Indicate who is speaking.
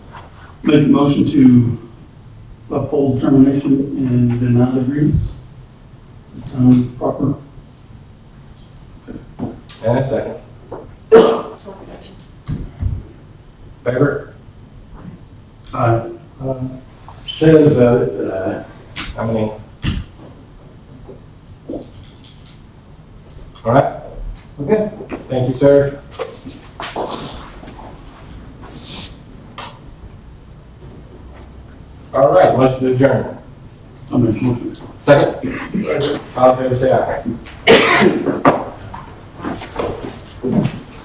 Speaker 1: Make a motion to uphold termination and deny the grievance. Sound proper?
Speaker 2: And a second. Favor?
Speaker 1: Aye.
Speaker 3: Says about it, but I,
Speaker 2: How many? All right. Okay. Thank you, sir. All right, motion to adjourn.
Speaker 1: I'll make a motion.
Speaker 2: Second? All in favor, say aye.